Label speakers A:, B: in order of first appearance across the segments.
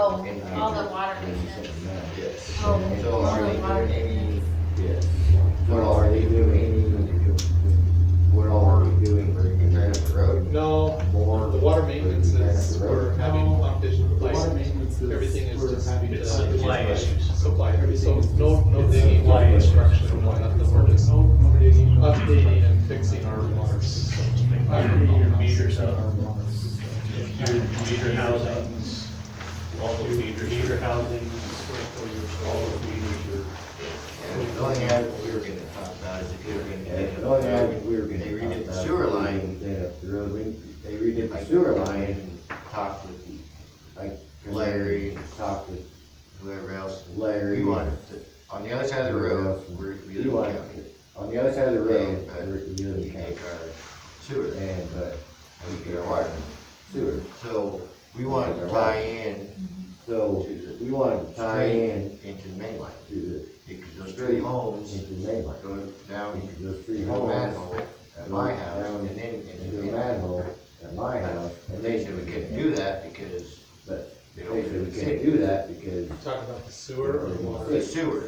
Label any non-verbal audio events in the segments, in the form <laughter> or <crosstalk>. A: Oh, All the water maintenance.
B: Yes.
A: Oh,
B: So are
A: so
B: you
A: water
B: doing any,
A: maintenance.
B: yes, what are you doing any, what are you doing for the Granite Road?
C: No,
B: More.
C: the water maintenance is, we're having pump station
D: The water
C: replacement.
D: maintenance is.
C: Everything is
D: we're
C: just-
D: having
E: It's
D: to-
E: supply issues.
C: Supply, so no, no
D: It's
C: digging, no
D: supply issues.
C: construction, no nothing, we're just
D: No, no digging, no-
C: updating and fixing our water systems.
D: Every year,
E: Your meters
B: Oh,
D: our
E: up,
D: water system.
E: your meter housings, all the meter, meter housings, all the meters
B: And the only ad we were gonna talk about is if you were gonna. The only ad we were gonna. They redid the sewer line. They redid the sewer line and talked with, like, Larry, and talked with whoever else. Larry.
F: We wanted to, on the other side of the road, we're, we
B: You
F: live
B: want,
F: in county.
B: on the other side of the road,
F: Yeah, but
B: we live
F: We
B: in county,
F: take our sewer, and
B: and, but
F: we get our water.
B: sewer,
F: So we wanted to tie in
B: so we want to tie in
F: into the mainline,
B: to
F: because those three
B: the,
F: homes
B: into the main line.
F: go down
B: Into those
F: to
B: three
F: the
B: homes,
F: manhole at my house, and then,
B: into
F: and
B: the
F: then.
B: manhole at my house,
F: And
B: and
F: they said we couldn't do that because
B: But
F: they
B: they said
F: don't
B: we can't
F: do
B: do that because
C: Talking about the sewer or the water?
F: the sewer.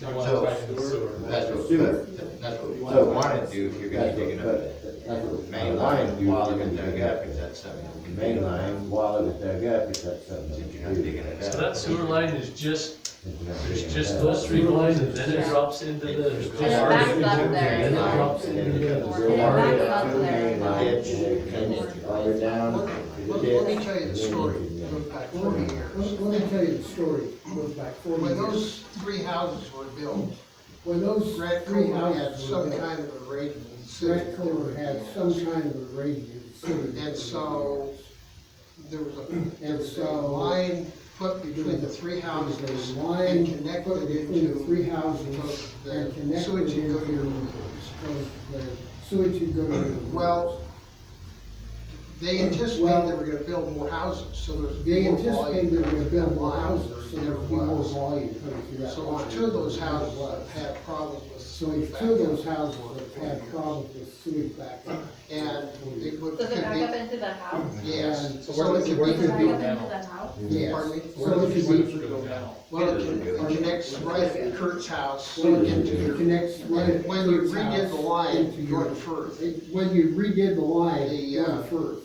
C: You want to tie in the sewer.
F: That's what,
B: Sewer.
F: that's what we
B: So-
F: wanted to do, if you're gonna
B: that's
F: dig it
B: what,
F: up.
B: but that's what
F: Main line,
B: line do,
F: while
B: you're
F: they're
B: gonna
F: dug
B: dig
F: up,
B: up.
F: is that something?
B: Main line, while it was dug up, it's got something.
F: If you're not digging it
E: are.
F: up.
E: So that sewer line is just,
B: If you're not digging
E: there's
B: it
E: just
B: up.
E: those three lines and then it drops into the.
A: And it
F: <laughs>
A: backs up
E: And then it
A: there.
E: drops into
B: And
E: the.
B: then
A: And it backs up
B: to the main line,
A: there.
B: and then it comes all the way down to the
G: Let, let me
B: ditch,
G: tell you
B: and
G: the
B: then
G: story,
B: you can,
G: It
B: uh,
G: goes back
D: Let
G: forty
D: me,
G: years.
D: let me tell you the story, It goes back forty
G: When
D: years.
G: those three houses were built,
D: When those
G: Grant
D: three
G: Culver had
D: houses were
G: some
D: built,
G: kind of a rating in the city.
D: Grant Culver had some kind of a radiant city.
G: And so, there was a, there was a
D: so-
G: line put between the three houses
D: There was a
G: and
D: line put
G: connected
D: between the
G: into
D: three houses and
G: the
D: connected
G: sewage and go to your
D: into
G: rooms.
D: the sewage you go to.
G: Well, They
D: Well-
G: anticipated they were gonna build more houses, so there was.
D: They
G: more
D: anticipated
G: volume.
D: there would build more houses, so
G: There
D: there would be more
G: was.
D: volume coming through that.
G: So
D: line
G: if two of those
D: than there was.
G: houses had problems with.
D: So if two of those houses have had problems with sewage back up.
G: And it would,
A: So
G: could
A: they back up
G: be,
A: into the house?
G: yes,
D: And
C: so
G: so
C: where
G: it
C: does it
G: could
C: work?
A: They back up
C: Could
G: be,
C: be
A: into
C: now.
A: the house?
D: Yes.
G: pardon me?
D: So it could be,
C: Go down.
G: Well, it it connects right at Kurt's house
D: well,
G: into
D: it
G: your,
D: connects right at
G: when you
D: Kurt's
G: redid
D: house
G: the line,
D: into
G: you
D: your-
G: go to Firth. It,
D: it- When you redid the line,
G: The,
D: going
G: uh,
D: first,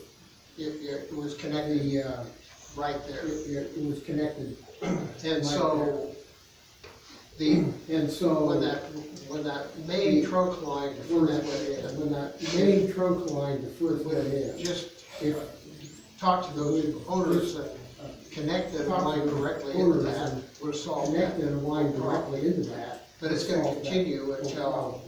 G: it was connected
D: the, uh,
G: right
D: it,
G: there.
D: it it was connected,
G: And so, the,
D: and so.
G: when that, when that main trunk line to
D: When
G: Firth
D: that,
G: went
D: when that main trunk line to first went
G: in,
D: in,
G: just
D: if
G: talk to those owners that connect the line directly into that, would solve that.
D: connected a line directly into that.
G: But it's gonna
D: solve that
G: continue
D: whole
G: until,
D: problem.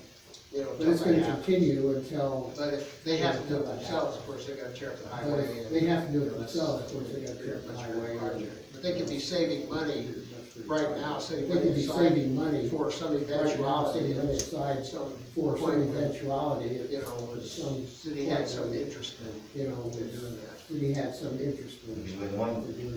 G: you know,
D: But it's
G: until they
D: gonna
G: have.
D: continue until,
G: But if they have to do it themselves, of course, they gotta tear up the
D: but
G: highway.
D: if
G: and-
D: they have to do it themselves, of course, they gotta tear up the
G: That's
D: highway.
G: their
D: and-
G: project. But they could be saving money right now,
D: They
G: saving money
D: could be
G: aside
D: saving money
G: for some
D: right now, saving money
G: eventuality.
D: aside
G: Some,
D: for some eventuality,
G: you
D: if,
G: know, was,
D: Some-
G: city had some interest in
D: you know,
G: doing
D: if
G: that.
D: we had some interest in it.
F: When one,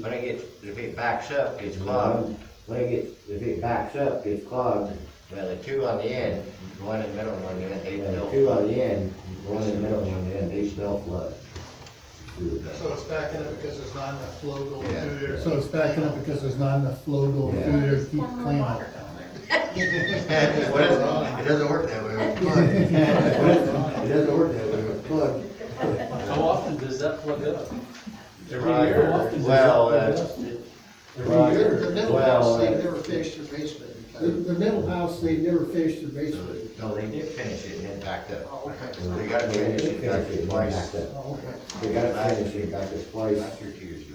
F: when it gets, if it backs up, gets
B: It's
F: clogged,
B: clogged, Mm-hmm. when it gets, if it backs up, gets clogged,
F: well, the two on the end, one in the middle, one in the end, they
B: and the
F: built.
B: two on the end, one in the middle, one in the end, they still flood.
H: So it's backing up because there's not enough flow going through there.
D: So it's backing up because there's not enough flow going
B: Yeah.
A: Well, there's one more water down there.
F: What is it? It doesn't work that way with flood.
B: It doesn't work that way with flood.
E: How often does that plug up? Every
F: Right.
E: year? How often does that
F: Well, uh,
E: plug
F: that's-
E: up?
B: Well,
G: The the middle
B: well,
G: house, they
B: uh,
G: never finished their basement
D: The,
G: because,
D: the middle house, they never finished their basement.
F: No, they did finish it and then backed up.
G: oh, okay.
F: So they gotta finish it, back it twice.
B: They gotta finish it, back it twice.
F: Last year, two years ago.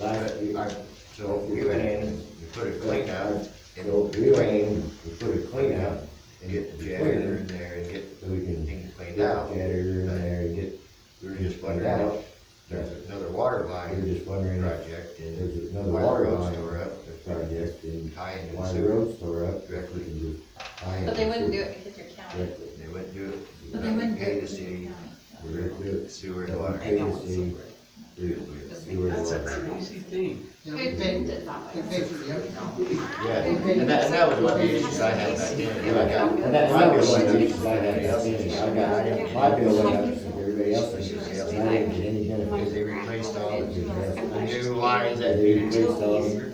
B: Last
F: But
B: year,
F: I, so we went in, we put a clean out,
B: so
F: and
B: we went in, we put a clean out,
F: and get the janitor in there and get
B: so we can
F: things
B: get
F: cleaned out.
B: the janitor in there and get,
F: We were just wondering if there's another water
B: we were
F: line
B: just wondering if
F: project and
B: there's another
F: why the
B: water
F: roads
B: line
F: were
B: or
F: up,
B: project and
F: tie into the
B: why the
F: sewer.
B: roads tore up, we
F: Directly.
B: can just tie in.
A: But they wouldn't do
B: the
A: it because you're
B: sewer
A: county.
B: directly.
F: They wouldn't do it.
A: But they wouldn't do
F: Pay
A: it because
F: the
A: you're
F: city,
A: county.
B: We were gonna do it.
F: sewer and water.
B: Pay the city, we were gonna
E: That's
B: do
E: a
B: it.
E: crazy thing.
G: You know,
A: Who
G: they-
A: did it that
G: they
A: way?
G: paid for the other.
F: Yeah, and that, and that was one of the issues I had back then.
B: And
F: I got-
B: that's
F: my
B: not
F: bill
B: what I
F: went up.
B: did, because I had nothing, I got, my bill went up, and everybody else's, and I didn't get any benefit.
F: Because they replaced all
B: Because
F: the new lines that
B: They replaced all,